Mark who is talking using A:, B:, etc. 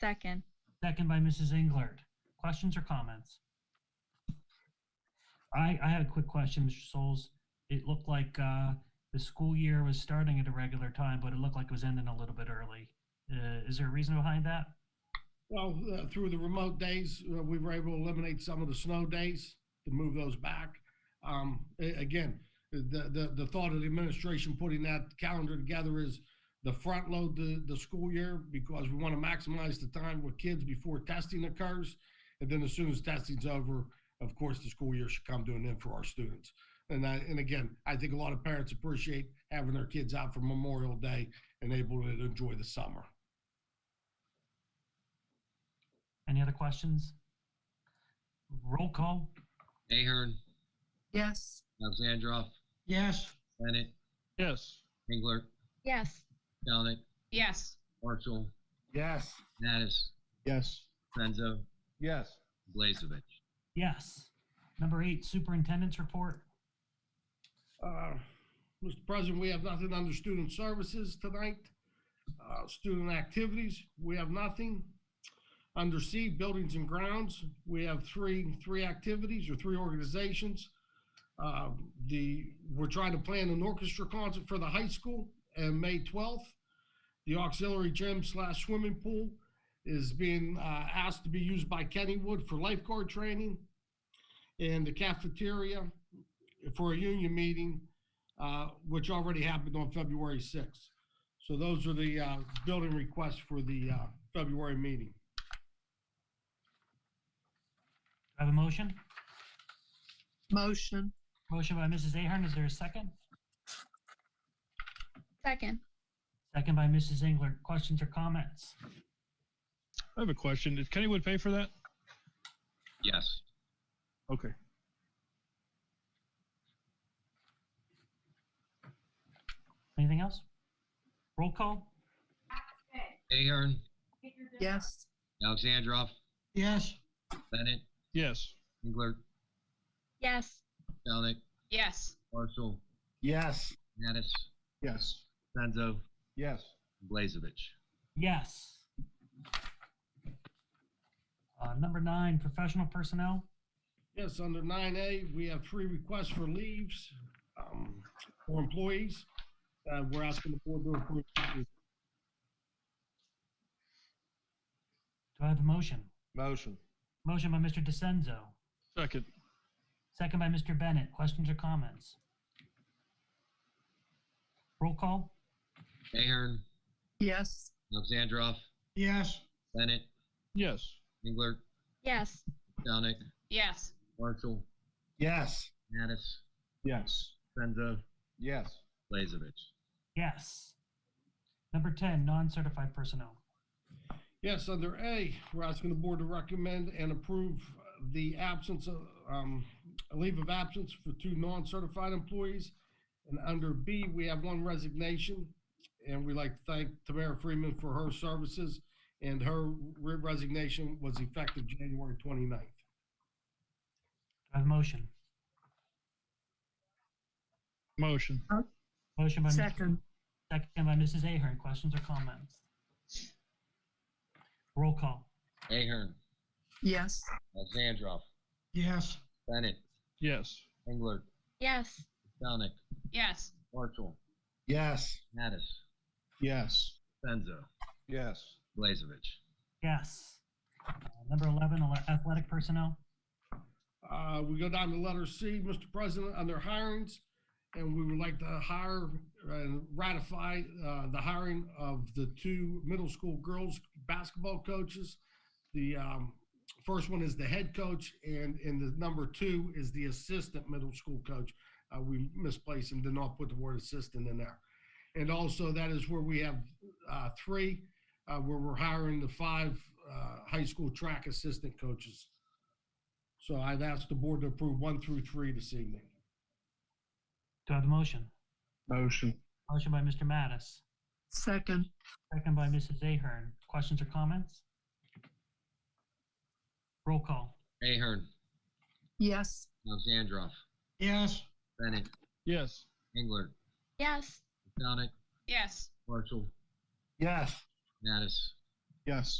A: Second.
B: Second by Mrs. Englert. Questions or comments? I, I had a quick question, Mr. Souls. It looked like uh, the school year was starting at a regular time, but it looked like it was ending a little bit early. Uh, Is there a reason behind that?
C: Well, uh, through the remote days, uh, we were able to eliminate some of the snow days to move those back. Um, a- Again, the, the, the thought of the administration putting that calendar together is the front load the, the school year because we want to maximize the time with kids before testing occurs. And then as soon as testing's over, of course, the school year should come to an end for our students. And I, and again, I think a lot of parents appreciate having their kids out for Memorial Day and able to enjoy the summer.
B: Any other questions? Roll call?
D: Ahern,
E: Yes.
D: Alexandrov,
E: Yes.
D: Bennett,
E: Yes.
D: Engler,
A: Yes.
D: Dalnick,
E: Yes.
D: Marshall,
C: Yes.
D: Mattis,
E: Yes.
D: Senzo,
E: Yes.
D: Blazevich.
B: Yes. Number eight, superintendent's report.
C: Uh, Mr. President, we have nothing under student services tonight. Uh, Student activities, we have nothing. Under C, buildings and grounds, we have three, three activities or three organizations. Uh, The, we're trying to plan an orchestra concert for the high school on May 12th. The auxiliary gym slash swimming pool is being uh, asked to be used by Kennywood for lifeguard training. And the cafeteria for a union meeting, uh, which already happened on February 6th. So those are the uh, building requests for the uh, February meeting.
B: Do I have a motion?
E: Motion.
B: Motion by Mrs. Ahern. Is there a second?
A: Second.
B: Second by Mrs. Englert. Questions or comments?
F: I have a question. Did Kennywood pay for that?
D: Yes.
F: Okay.
B: Anything else? Roll call?
D: Ahern,
E: Yes.
D: Alexandrov,
E: Yes.
D: Bennett,
F: Yes.
D: Engler,
A: Yes.
D: Dalnick,
E: Yes.
D: Marshall,
C: Yes.
D: Mattis,
F: Yes.
D: Senzo,
F: Yes.
D: Blazevich.
B: Yes. Uh, number nine, professional personnel.
C: Yes, under 9A, we have three requests for leaves um, for employees. Uh, We're asking the board to approve.
B: Do I have a motion?
E: Motion.
B: Motion by Mr. DeCenzo,
F: Second.
B: second by Mr. Bennett. Questions or comments? Roll call?
D: Ahern,
E: Yes.
D: Alexandrov,
E: Yes.
D: Bennett,
F: Yes.
D: Engler,
A: Yes.
D: Dalnick,
E: Yes.
D: Marshall,
C: Yes.
D: Mattis,
F: Yes.
D: Senzo,
F: Yes.
D: Blazevich.
B: Yes. Number 10, non-certified personnel.
C: Yes, under A, we're asking the board to recommend and approve the absence of, um, a leave of absence for two non-certified employees. And under B, we have one resignation, and we'd like to thank Tamara Freeman for her services, and her re- resignation was effective January 29th.
B: Do I have a motion?
F: Motion.
B: Motion by, Mr.
E: Second.
B: second by Mrs. Ahern. Questions or comments? Roll call?
D: Ahern,
E: Yes.
D: Alexandrov,
E: Yes.
D: Bennett,
F: Yes.
D: Engler,
A: Yes.
D: Dalnick,
E: Yes.
D: Marshall,
C: Yes.
D: Mattis,
F: Yes.
D: Senzo,
F: Yes.
D: Blazevich.
B: Yes. Uh, Number 11, ele- athletic personnel.
C: Uh, we go down to letter C, Mr. President, under hirings, and we would like to hire and ratify, uh, the hiring of the two middle school girls basketball coaches. The, um, first one is the head coach and, and the number two is the assistant middle school coach. Uh, we misplaced and did not put the word assistant in there. And also that is where we have, uh, three, uh, where we're hiring the five, uh, high school track assistant coaches. So I've asked the board to approve one through three this evening.
B: Do I have a motion?
F: Motion.
B: Motion by Mr. Mattis,
E: Second.
B: second by Mrs. Ahern. Questions or comments? Roll call?
D: Ahern,
E: Yes.
D: Alexandrov,
E: Yes.
D: Bennett,
F: Yes.
D: Engler,
A: Yes.
D: Dalnick,
E: Yes.
D: Marshall,
C: Yes.
D: Mattis,
F: Yes.